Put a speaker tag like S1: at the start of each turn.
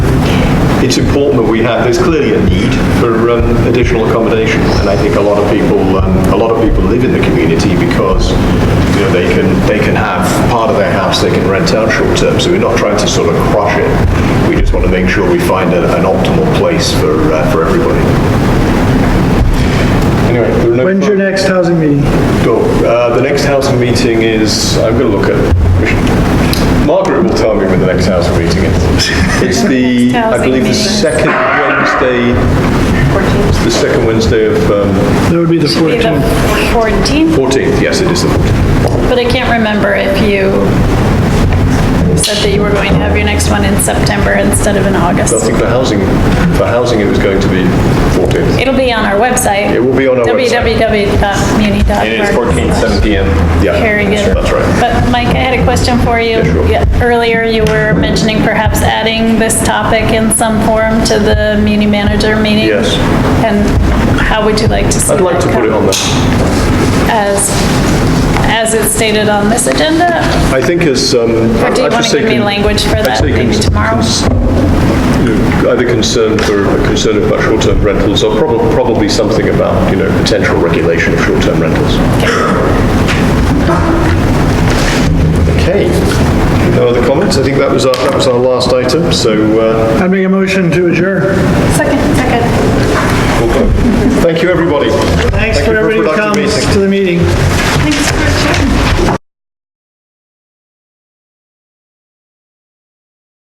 S1: it's important that we have, there's clearly a need for um, additional accommodation, and I think a lot of people, um, a lot of people live in the community because, you know, they can, they can have part of their house, they can rent out short-term, so we're not trying to sort of crush it. We just want to make sure we find a- an optimal place for, uh, for everybody. Anyway, there are no...
S2: When's your next housing meeting?
S1: Cool. Uh, The next housing meeting is, I'm going to look at, Margaret will tell me when the next housing meeting is. It's the, I
S3: housing
S1: believe, the
S3: meeting?
S1: second Wednesday, the second Wednesday of um,
S2: That would be the
S3: Be the
S2: 14th.
S3: 14th,
S1: 14th, yes, it is the 14th.
S3: but I can't remember if you said that you were going to have your next one in September instead of in
S1: I
S3: August.
S1: think for housing, for housing, it was going to be 14th.
S3: It'll be on our website.
S1: It will be on our website.
S3: www.muni.org.
S4: It is 14, 7 PM.
S1: Yeah,
S3: Very good.
S1: That's right.
S3: But Mike, I had a question for you.
S1: Yeah, sure.
S3: Yeah, Earlier, you were mentioning perhaps adding this topic in some form to the muni manager meeting.
S1: Yes.
S3: And how would you like to see
S1: I'd like
S3: that
S1: to put it
S3: come?
S1: on there.
S3: As, as it's stated on this agenda?
S1: I think as, um...
S3: Or do you
S1: I've
S3: want
S1: just
S3: to give me
S1: taken-
S3: language for
S1: I've
S3: that
S1: taken
S3: maybe tomorrow?
S1: cons- you know, Either concern for, a concern about short-term rentals, or probably, probably something about, you know, potential regulation of short-term rentals. Okay. No other comments? I think that was our, that was our last item, so, uh,
S2: I make a motion to adjourn.
S3: Second.